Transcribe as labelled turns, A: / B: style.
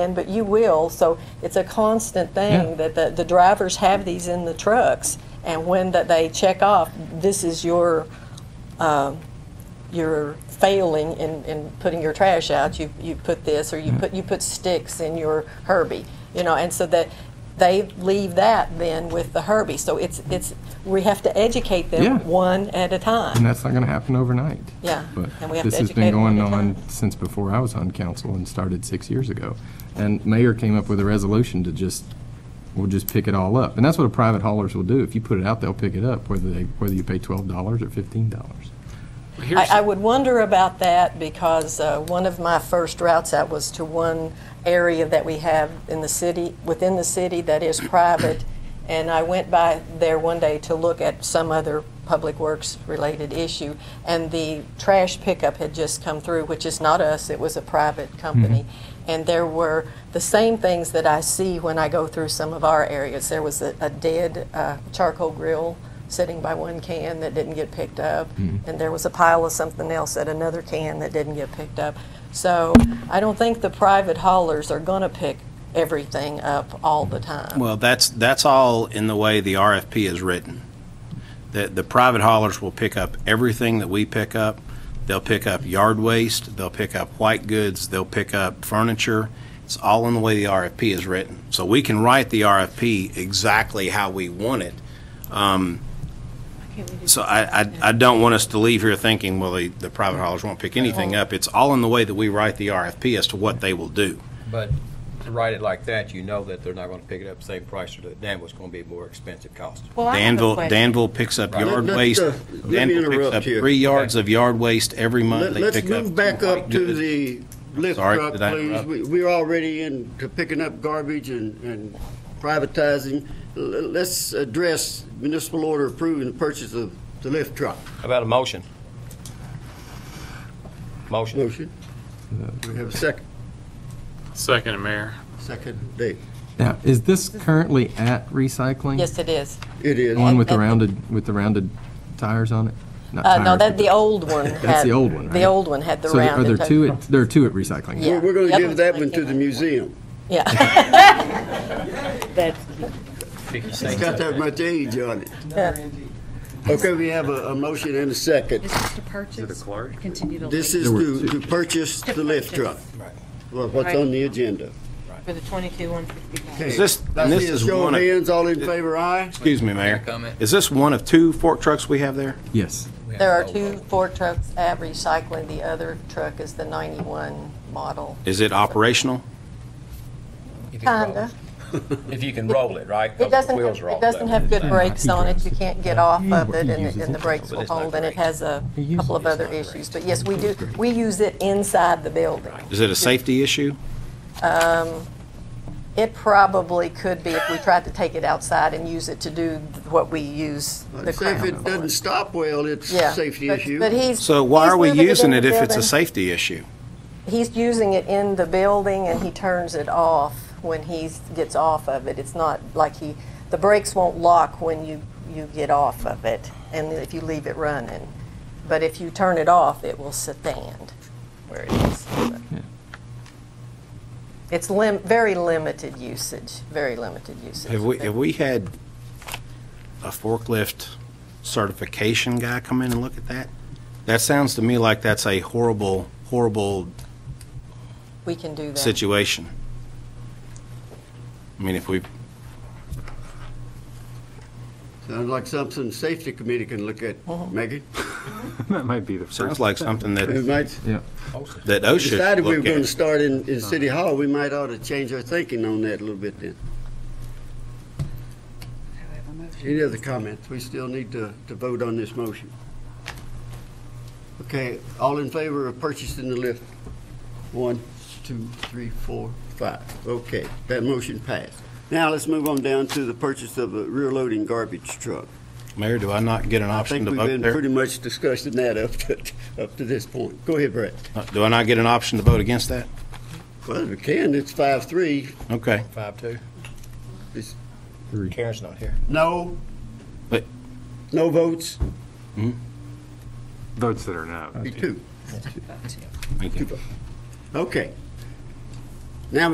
A: And, but you will, so it's a constant
B: Yeah.
A: thing that the, the drivers have these in the trucks, and when that they check off, this is your, um, your failing in, in putting your trash out, you, you put this, or
B: Mm-hmm.
A: you put, you put sticks in your Herbie, you know, and so that they leave that then with the Herbie, so it's, it's, we have to educate
B: Yeah.
A: them one at a
B: And
A: time.
B: that's not going to happen overnight.
A: Yeah,
B: But
A: and we have
B: this
A: to
B: has
A: educate
B: been
A: 'em all
B: going
A: the time.
B: on since before I was on council and started six years ago. And mayor came up with a resolution to just, we'll just pick it all up. And that's what a private haulers will do. If you put it out, they'll pick it up, whether they, whether you pay twelve dollars or fifteen dollars.
A: I, I would wonder about that because uh, one of my first routes out was to one area that we have in the city, within the city that is private. And I went by there one day to look at some other public works related issue. And the trash pickup had just come through, which is not us, it was a private company. And there were the same things that I see when I go through some of our areas. There was a, a dead uh, charcoal grill sitting by one can that didn't get picked up, and there was a pile of something else at another can that didn't get picked up. So I don't think the private haulers are going to pick everything up all the time.
C: Well, that's, that's all in the way the RFP is written. The, the private haulers will pick up everything that we pick up. They'll pick up yard waste, they'll pick up white goods, they'll pick up furniture. It's all in the way the RFP is written. So we can write the RFP exactly how we want it. Um, So I, I, I don't want us to leave here thinking, well, the, the private haulers won't pick anything up. It's all in the way that we write the RFP as to what they will do.
D: But to write it like that, you know that they're not gonna pick it up the same price, or that Danville's gonna be a more expensive cost.
E: Well, Oh, I have a
C: Danville,
E: question.
C: Danville picks up
D: Right.
C: yard
F: Let- let,
C: waste.
F: uh, let me
C: Danville picks
F: interrupt
C: up
F: you.
C: three yards of yard waste every month.
F: Let-
C: They
F: Let's
C: pick up.
F: move back up to the lift
C: Sorry,
F: truck,
C: did I
F: please.
C: interrupt?
F: We- We're already into picking up garbage and and privatizing. L- Let's address municipal order approving the purchase of the lift truck.
D: How About a motion. Motion.
F: Motion. We have a second.
G: Second, Mayor.
F: Second, Dave.
B: Now, is this currently at recycling?
A: yes, it is.
F: It is.
B: The one with the
A: At- at-
B: rounded, with the rounded tires on it? Not
A: Uh, no,
B: tires,
A: that
B: but
A: the old one.
B: That's
A: had-
B: the old one,
A: The
B: right?
A: old one had the
B: So
A: round.
B: are there
A: and-
B: two, at- there are two at recycling?
A: Yeah.
F: We're we're
A: The
F: gonna
A: other
F: give that
A: one's
F: one to
A: like
F: the
A: in-
F: museum.
A: Yeah.
F: It's got that much age on it. Okay, we have a a motion and a second.
E: Is this to purchase, continue to
F: This
E: lease
F: is to to purchase the lift truck. Well, What's on the agenda?
E: for the twenty-two, one fifty-five?
F: Okay,
C: Is this-
F: that's
C: and this
F: it.
C: is
F: Show
C: one
F: of
C: of-
F: hands, all in favor, aye?
C: Excuse me, Mayor. Is this one of two fork trucks we have there?
B: Yes.
A: There are two Ford trucks at recycling. The other truck is the 91 model.
C: Is it operational?
A: Kinda.
D: If you can roll it, right? 'Cause
A: It
D: the
A: doesn't,
D: wheels
A: have-
D: are all
A: it doesn't
D: leather.
A: have good brakes on it,
B: drives
A: you
B: it.
A: can't get off
B: He-
A: of
B: he
A: it, and
B: uses
A: it- and the
B: it.
A: brakes
D: But
A: will
D: it's not
A: hold, and it
D: great.
A: has a
B: He uses
A: couple of
B: it.
A: other issues, but yes, we do, we use it inside the building.
C: Is it a safety issue?
A: Um, It probably could be if we tried to take it outside and use it to do what we use the
F: Say if
A: crown
F: it
A: for.
F: doesn't stop well, it's
A: Yeah,
F: a safety
A: but-
F: issue.
A: But he's.
C: So why
A: he's
C: are we
A: moving
C: using
A: in
C: it
A: the
C: if it's a
A: building.
C: safety issue?
A: He's using it in the building and he turns it off when he gets off of it. It's not like he, the brakes won't lock when you, you get off of it and if you leave it running. But if you turn it off, it will stand where it is. It's lim, very limited usage, very limited usage.
C: Have we, have we had a forklift certification guy come in and look at that? That sounds to me like that's a horrible, horrible
A: We can do that.
C: situation. I mean, if we,
F: Sounds like something the safety committee can look at,
A: Uh-huh.
F: Megan.
G: That might be the
C: sounds
G: first.
C: like something that.
F: We might,
C: that OSHA should
F: decided we were
C: look
F: gonna
C: at.
F: start in, in City Hall, we might ought to change our thinking on that a little bit then. Any other comments? We still need to, to vote on this motion. Okay, all in favor of purchasing the lift? One, two, three, four, five. Okay, that motion passed. Now let's move on down to the purchase of a rear loading garbage truck.
C: Mayor, do I not get an
F: I
C: option
F: think
C: to
F: we've
C: vote
F: been
C: there?
F: pretty much discussing that up to, up to this point. Go ahead, Brett.
C: Uh, Do I not get an option to vote against that?
F: Well, we can, it's five, three.
C: Okay.
D: Five, two.
F: It's-
D: Karen's not here.
F: No,
C: But
F: no votes,
G: Votes that are no.
F: be two.
C: thank you.
F: Okay,